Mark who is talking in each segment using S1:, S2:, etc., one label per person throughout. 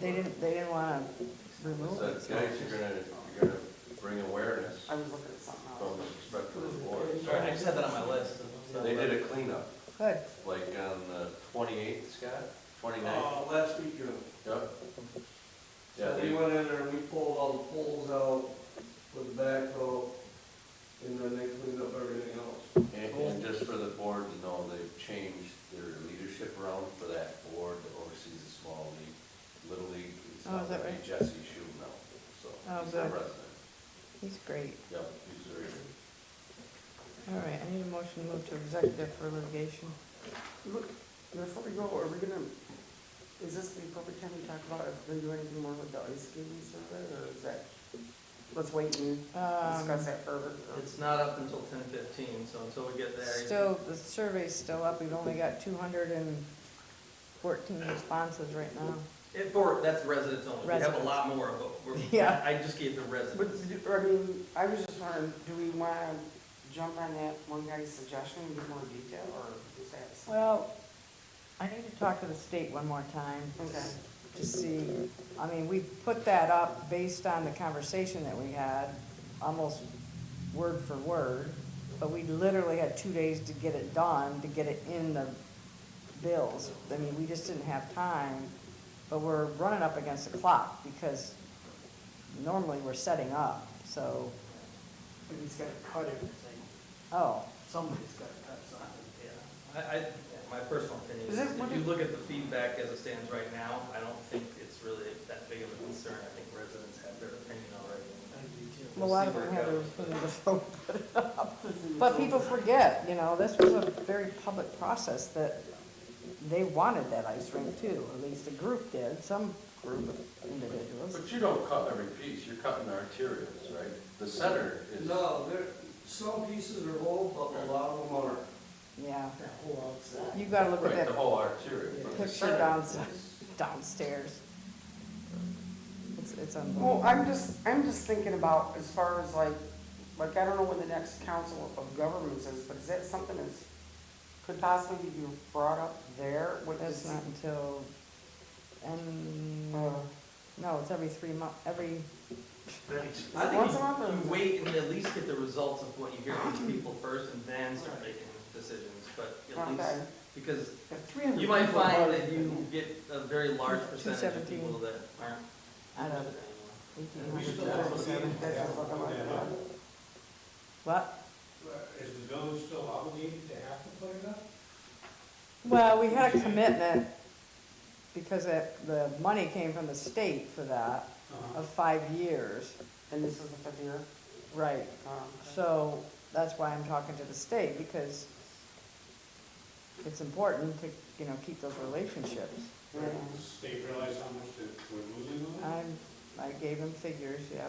S1: They didn't, they didn't wanna remove
S2: So
S1: it.
S2: it's nice, you're gonna, you're gonna bring awareness
S1: I was looking at something
S2: from
S1: else.
S2: the perspective of the board.
S3: Sorry, I just had that on my list. so-
S2: They did a cleanup,
S1: Good,
S2: like on the twenty-eighth, Scott, twenty-ninth,
S4: Uh, last weekend,
S2: Doug? Yeah,
S4: so
S2: they,
S4: we went in there, we pulled all the poles out with the backhoe, and then they cleaned up everything else.
S2: and, and just for the board to know, they've changed their leadership around for that board that oversees the small league, little league. It's
S1: Oh,
S2: now
S1: is that
S2: gonna be
S1: right?
S2: Jesse Shu now, so
S1: Oh,
S2: he's the
S1: good.
S2: president.
S1: he's great.
S2: Yep, he's very good.
S1: All right, I need a motion to move to executive for litigation.
S5: Look, before we go, are we gonna, is this the appropriate time to talk about if we do anything more with the ice skating survey, or is that, let's wait and discuss
S1: Um,
S5: that further?
S3: uh, It's not up until ten fifteen, so until we get there.
S1: still, the survey's still up, we've only got two hundred and fourteen responses right now.
S3: It, for, that's residents only. We have a
S1: Residents.
S3: lot more of them. We're-
S1: Yeah.
S3: I just gave the
S5: But,
S3: residents.
S5: I mean, I was just wondering, do we wanna jump on that one guy's suggestion and get more detail, or is that?
S1: Well, I need to talk to the state one more time.
S5: Okay.
S1: To see, I mean, we put that up based on the conversation that we had, almost word for word. But we literally had two days to get it done, to get it in the bills. I mean, we just didn't have time. But we're running up against the clock because normally we're setting up, so,
S6: But he's gotta cut everything,
S1: oh,
S6: somebody's gotta cut something.
S3: Yeah. I, I, my personal opinion is,
S5: Is it-
S3: if you look at the feedback as it stands right now, I don't think it's really that big of a concern. I think residents have their opinion already.
S6: I do too.
S1: a lot of them have their foot in the throat. But people forget, you know, this was a very public process that they wanted that ice rink too, at least a group did, some group of individuals.
S2: But you don't cut every piece, you're cutting arterials, right? The center is.
S4: No, there, some pieces are whole, but a lot of them aren't.
S1: Yeah,
S6: That whole outside.
S1: you gotta look at
S2: Right, the
S1: that
S2: whole arterial. but the
S1: Picture
S2: center
S1: downside.
S2: is-
S1: downstairs. It's, it's
S5: Well,
S1: unbelievable.
S5: I'm just, I'm just thinking about as far as like, like, I don't know what the next council of governments is, but is that something that's, could possibly be brought up there? What
S1: That's
S5: is-
S1: not until, and,
S5: Uh,
S1: no, it's every three month, every,
S3: I think
S5: Once
S3: you-
S5: a month or-
S3: you wait and at least get the results of what you hear from people first and then start making decisions, but at least,
S5: okay.
S3: because
S5: If 300
S3: You might
S5: people
S3: find
S5: voted-
S3: that you get a very large percentage of
S1: 217.
S3: people that aren't.
S1: I don't know,
S3: And we should
S1: 1800.
S3: still have a meeting.
S5: That's just what I'm like,
S1: What?
S7: Is the village still obligated to have to put it up?
S1: Well, we had a commitment because it, the money came from the state for that
S6: Uh-huh.
S1: of five years.
S5: And this is the fifth year?
S1: Right.
S5: Um,
S1: So that's why I'm talking to the state because it's important to, you know, keep those relationships.
S5: yeah.
S7: Does the state realize how much that we're losing on it?
S1: I'm, I gave him figures, yeah.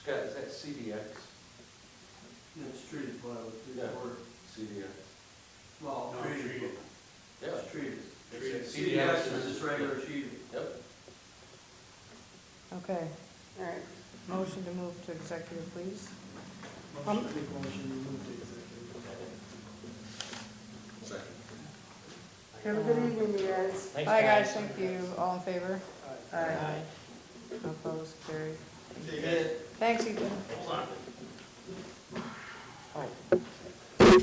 S2: Scott, is that CDX?
S4: It's treated by the
S2: Yeah.
S4: board.
S2: CDX.
S4: Well,
S7: No,
S4: treated,
S7: treated.
S2: Yeah,
S4: it's treated.
S2: Treated.
S4: CDX is just regular treated.
S2: yep.
S1: Okay,
S5: All right,
S1: motion to move to executive, please.
S6: Motion, big motion, you move to executive.
S2: Second.
S5: have a good evening, you guys.
S1: Bye, guys, thank you. All in favor?
S6: Aye.
S1: Aye. Opposed, carried.
S3: You get-
S1: Thanks, Ethan.
S3: Hold on.
S1: Oh,